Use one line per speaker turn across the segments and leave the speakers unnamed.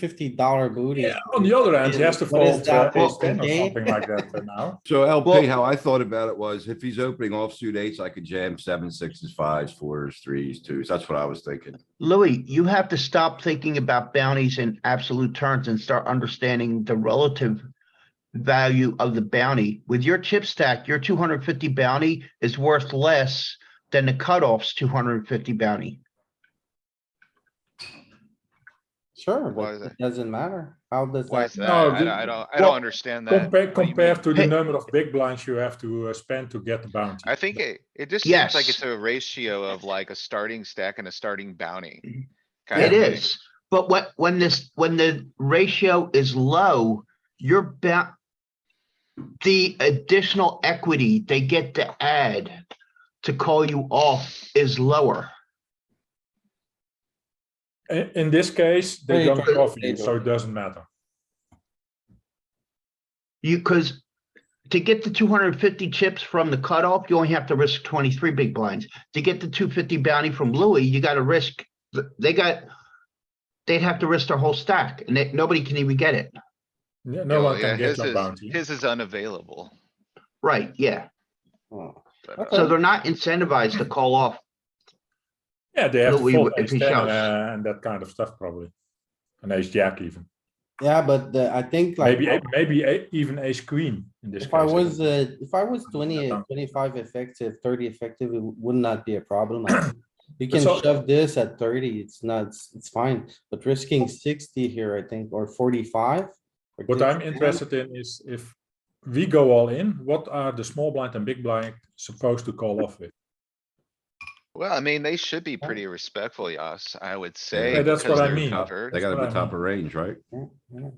fifty dollar booty.
Yeah, on the other hand, he has to
What is
fold uh,
that,
ace ten or
open
something like that uh, now.
So LP,
Well-
how I thought about it was if he's opening offsuit eights, I could jam seven, sixes, fives, fours, threes, twos. That's what I was thinking.
Louis, you have to stop thinking about bounties in absolute terms and start understanding the relative value of the bounty. With your chip stack, your two hundred fifty bounty is worth less than the cutoff's two hundred fifty bounty.
Sure,
Why is
but
that?
it doesn't matter. How does
Why is
that?
that?
No,
I
the-
don't- I don't, I
well,
don't understand that.
Compare,
what you mean.
compared to the
Hey.
number of big blinds you have to uh, spend to get the bounty.
I think it, it just seems like
Yes.
it's a ratio of like a starting stack and a starting bounty.
Mm-hmm.
kind
It
of thing.
is, but what, when this, when the ratio is low, you're bound. The additional equity they get to add to call you off is lower.
In, in this case, they
They
don't
don't-
cover
they
you, so
don't.
it doesn't matter.
You, cause to get the two hundred and fifty chips from the cutoff, you only have to risk twenty-three big blinds. To get the two fifty bounty from Louis, you gotta risk, th- they got. They'd have to risk their whole stack and they- nobody can even get it.
No
Yeah,
no one
well,
can
yeah,
get
his
your
is-
bounty.
His is unavailable.
Right, yeah.
Oh,
but,
Okay.
uh,
So they're not incentivized to call off.
Yeah, they have
No,
to
we
fold
would-
ace
if he
ten
shoves.
uh, and that kind of stuff probably. An ace jack even,
Yeah, but the- I think like,
maybe, a- maybe a- even ace queen in this
if
case.
I
think.
was, uh, if I was 20,
Yeah.
25 effective, thirty effective, it would not be a problem. I think. You can
So-
shove this at thirty, it's not, it's- it's fine, but risking sixty here, I think, or forty-five. or
What I'm
51.
interested in is if we go all in, what are the small blind and big blind supposed to call off with?
Well, I mean, they should be pretty respectful, Yas, I would say.
Yeah, that's
because
what I
they're
mean.
Top-
covered.
They gotta
what
be
I
top of range, right?
Yeah, yeah.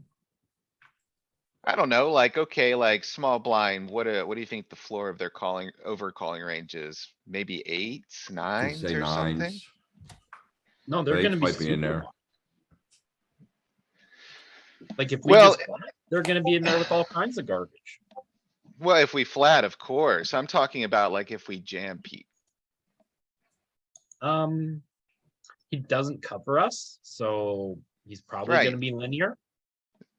I don't know, like, okay, like small blind, what, uh, what do you think the floor of their calling, over calling range is? Maybe eights,
Could
nines
say
or something?
nines.
No, they're
They
gonna be
might be in
super
there.
wide. Like if we
Well,
just, they're gonna be in there with all kinds of garbage.
Well, if we flat, of course. I'm talking about like if we jam peak.
Um, he doesn't cover us, so he's probably
Right.
gonna be linear.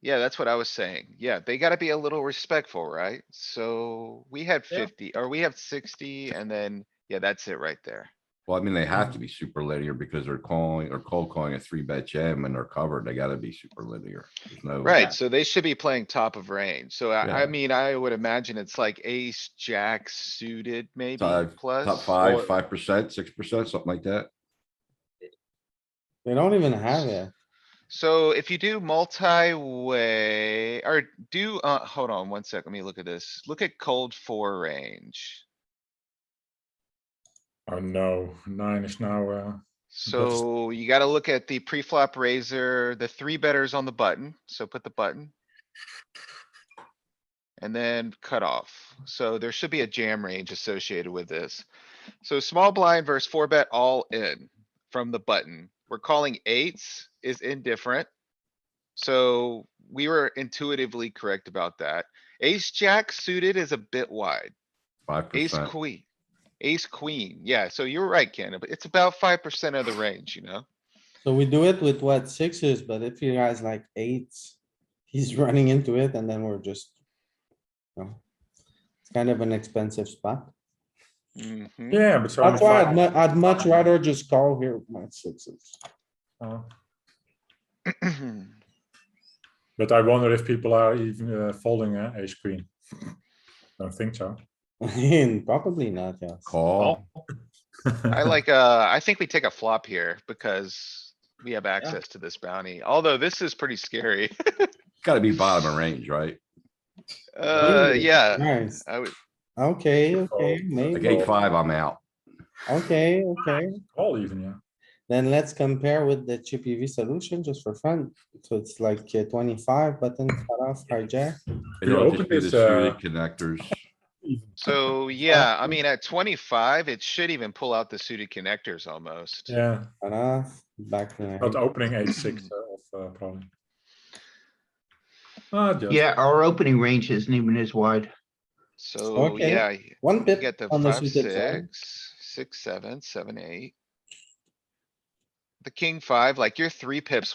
Yeah, that's what I was saying. Yeah, they gotta be a little respectful, right? So we had
Yeah.
fifty, or we have sixty, and then, yeah, that's it right there.
Well, I mean, they have to be super linear because they're calling or cold calling a three bet jam and they're covered. They gotta be super linear. There's no.
Right, so they should be playing top of range. So I, I
Yeah.
mean, I would imagine it's like ace, jack suited maybe
Five-
plus.
Top
or-
five, five percent, six percent, something like that.
They don't even have it.
So if you do multi-way or do, uh, hold on one sec, let me look at this. Look at cold four range.
Oh no, nine is now, uh, That's-
So you gotta look at the pre-flop razor, the three betters on the button, so put the button. And then cut off. So there should be a jam range associated with this. So small blind versus four bet all in from the button. We're calling eights is indifferent. So we were intuitively correct about that. Ace jack suited is a bit wide.
Five
Ace
percent.
queen, ace queen, yeah, so you're right, Ken, but it's about five percent of the range, you know?
So we do it with what sixes, but if you guys like eights, he's running into it and then we're just. you know, It's kind of an expensive spot.
Mhm.
yeah, but so.
That's why I'd mu- I'd much rather just call here with my sixes.
But I wonder if people are even uh, folding uh, ace queen. Don't think so.
And probably not, yes.
Call.
Oh.
I like, uh, I think we take a flop here because we have access to this bounty, although this is pretty scary.
Gotta be bottom of range, right?
Uh,
Ooh.
yeah,
Nice.
I would,
Okay, okay,
Like
maybe.
eight, five, I'm out.
Okay, okay.
All even, yeah.
Then let's compare with the chippy V solution just for fun. So it's like uh, twenty-five button cutoff hijack.
You
It'll
open
just be the
this, uh,
suited connectors.
so, yeah, I mean, at twenty-five, it should even pull out the suited connectors almost.
Yeah,
Cutoff, back there.
not opening eight, six uh, of, uh, probably. Ah, just.
Yeah, our opening range isn't even as wide.
So,
Okay.
yeah,
One
you
pip
get the
on the
five,
suited side.
six, six, seven, seven, eight. The king five, like you're three pips